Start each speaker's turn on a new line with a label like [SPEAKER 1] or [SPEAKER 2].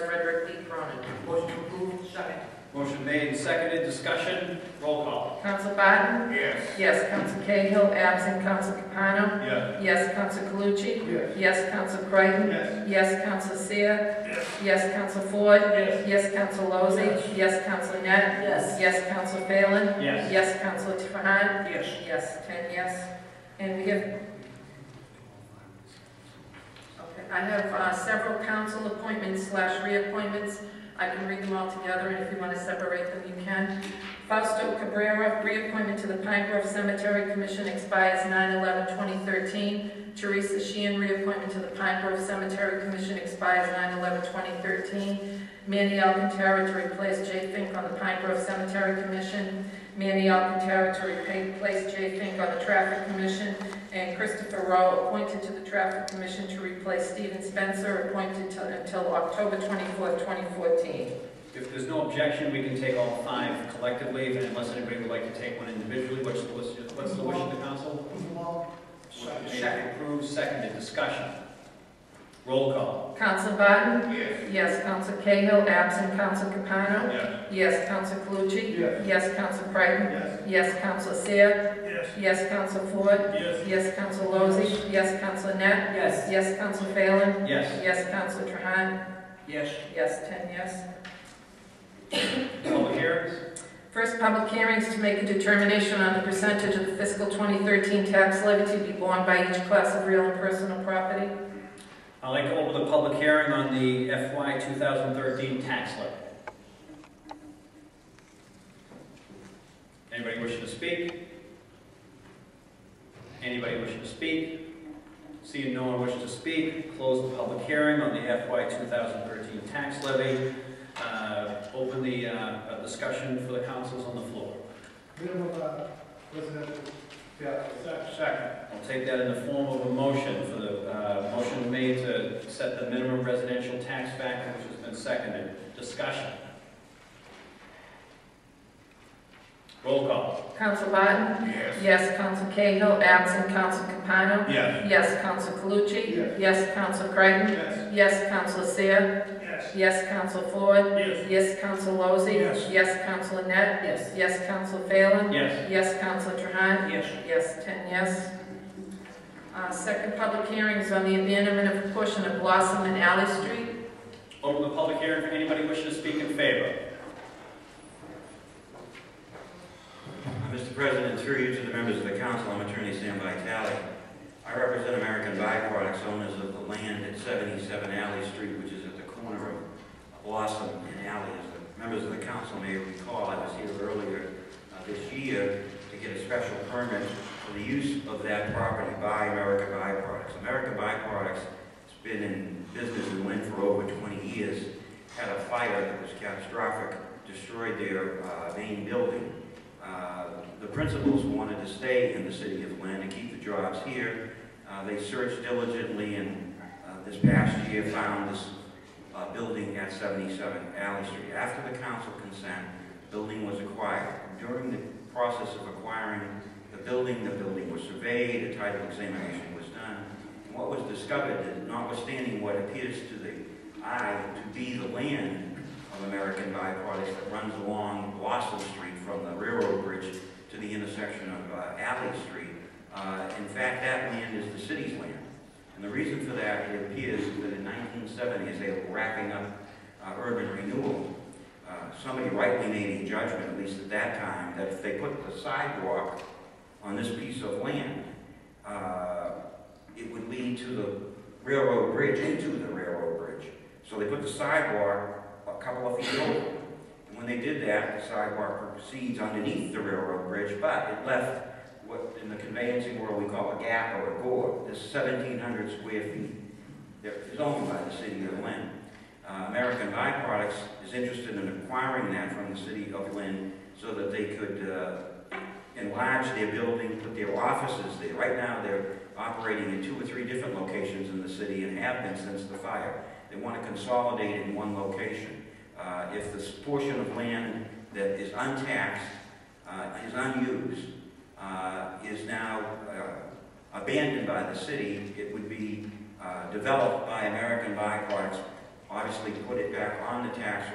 [SPEAKER 1] Second.
[SPEAKER 2] Motion made and seconded, discussion, roll call.
[SPEAKER 3] Council Biden?
[SPEAKER 2] Yes.
[SPEAKER 3] Yes. Council Cahill, absent. Council Capano?
[SPEAKER 2] Yes.
[SPEAKER 3] Yes. Council Calucci?
[SPEAKER 2] Yes.
[SPEAKER 3] Yes. Council Creighton?
[SPEAKER 2] Yes.
[SPEAKER 3] Yes. Council Seer?
[SPEAKER 2] Yes.
[SPEAKER 3] Yes. Council Ford?
[SPEAKER 2] Yes.
[SPEAKER 3] Yes. Council Lozey? Yes. Council Net?
[SPEAKER 1] Yes.
[SPEAKER 3] Yes. Council Phelan?
[SPEAKER 2] Yes.
[SPEAKER 3] Yes. Council Trahan?
[SPEAKER 1] Yes.
[SPEAKER 3] Yes, ten yes. And we have, okay, I have uh, several council appointments slash reappointments. I can read them all together, and if you want to separate them, you can. Fausto Cabrera, reappointment to the Pine Grove Cemetery Commission expires 9/11/2013. Teresa Sheehan, reappointment to the Pine Grove Cemetery Commission expires 9/11/2013. Manny Alcantara to replace Jay Fink on the Pine Grove Cemetery Commission Manny Alcantara to replace Jay Fink on the Traffic Commission, and Christopher Rowe, appointed to the Traffic Commission to replace Stephen Spencer, appointed to- until October 24th, 2014.
[SPEAKER 2] If there's no objection, we can take all five collectively, and unless anybody would like to take one individually, what's the wish, what's the wish of the council? Motion made and approved, seconded, discussion, roll call.
[SPEAKER 3] Counsel Barton?
[SPEAKER 2] Yes.
[SPEAKER 3] Yes. Counsel Cahill, absent. Counsel Capano?
[SPEAKER 2] Yes.
[SPEAKER 3] Yes. Counsel Calucci?
[SPEAKER 2] Yes.
[SPEAKER 3] Yes. Counsel Creighton?
[SPEAKER 2] Yes.
[SPEAKER 3] Yes. Counsel Seer?
[SPEAKER 2] Yes.
[SPEAKER 3] Yes. Counsel Ford?
[SPEAKER 2] Yes.
[SPEAKER 3] Yes. Counsel Lozey? Yes. Counsel Net?
[SPEAKER 1] Yes.
[SPEAKER 3] Yes. Counsel Phelan?
[SPEAKER 2] Yes.
[SPEAKER 3] Yes. Counsel Trahan?
[SPEAKER 1] Yes.
[SPEAKER 3] Yes, 10 yes.
[SPEAKER 2] Public hearings?
[SPEAKER 3] First public hearings to make a determination on the percentage of the fiscal 2013 tax levy to be borne by each class of real and personal property.
[SPEAKER 2] I'd like to open the public hearing on the FY 2013 tax levy. Anybody wishing to speak? Anybody wishing to speak? Seeing no one wishing to speak, close the public hearing on the FY 2013 tax levy. Uh, Open the uh, uh, discussion for the councils on the floor.
[SPEAKER 4] Minimum, uh, residential, yeah.
[SPEAKER 2] Second. I'll take that in the form of a motion for the, uh, motion made to set the minimum residential tax factor, which has been seconded. Discussion. Roll call.
[SPEAKER 3] Counsel Barton?
[SPEAKER 2] Yes.
[SPEAKER 3] Yes. Counsel Cahill, absent. Counsel Capano?
[SPEAKER 2] Yes.
[SPEAKER 3] Yes. Counsel Calucci?
[SPEAKER 4] Yes.
[SPEAKER 3] Yes. Counsel Creighton?
[SPEAKER 2] Yes.
[SPEAKER 3] Yes. Counsel Seer?
[SPEAKER 2] Yes.
[SPEAKER 3] Yes. Counsel Ford?
[SPEAKER 2] Yes.
[SPEAKER 3] Yes. Counsel Lozey?
[SPEAKER 2] Yes.
[SPEAKER 3] Yes. Counsel Annette?
[SPEAKER 1] Yes.
[SPEAKER 3] Yes. Counsel Phelan?
[SPEAKER 2] Yes.
[SPEAKER 3] Yes. Counsel Trahan?
[SPEAKER 1] Yes.
[SPEAKER 3] Yes, 10 yes. Uh, Second public hearing is on the abandonment of a portion of Blossom and Alley Street.
[SPEAKER 2] Open the public hearing for anybody wishing to speak in favor.
[SPEAKER 5] Mr. President, through you to the members of the council, I'm Attorney Sam Vitale. I represent American Byproducts, owners of the land at 77 Alley Street, which is at the corner of Blossom and Alley. As the members of the council may recall, I was here earlier uh, this year to get a special permit for the use of that property by American Byproducts. American Byproducts has been in business in Lynn for over 20 years, had a fire that was catastrophic, destroyed their uh, main building. Uh, The principals wanted to stay in the city of Lynn and keep the jobs here. Uh, They searched diligently and uh, this past year found this uh, building at 77 Alley Street. After the council consent, the building was acquired. During the process of acquiring the building, the building was surveyed, a title examination was done. And What was discovered, is, notwithstanding what appears to the eye to be the land of American byproducts that runs along Blossom Street from the railroad bridge to the intersection of uh, Alley Street. Uh, In fact, that land is the city's land. And the reason for that, it appears that in 1970, as they were wrapping up uh, urban renewal, uh, somebody rightly made a judgment, at least at that time, that if they put the sidewalk on this piece of land, uh, it would lead to the railroad bridge, into the railroad bridge. So they put the sidewalk a couple of feet over. And when they did that, the sidewalk proceeds underneath the railroad bridge, but it left what in the conveyancing world we call a gap or a gore. There's seventeen hundred square feet that is owned by the city of Lynn. Uh, American Byproducts is interested in acquiring that from the city of Lynn so that they could, uh, enlarge their building, put their offices there. Right now, they're operating in two or three different locations in the city and have been since the fire. They want to consolidate in one location. Uh, If this portion of land that is untaxed, uh, is unused, uh, is now uh, abandoned by the city, it would be uh, developed by American Byproducts, obviously put it back on the tax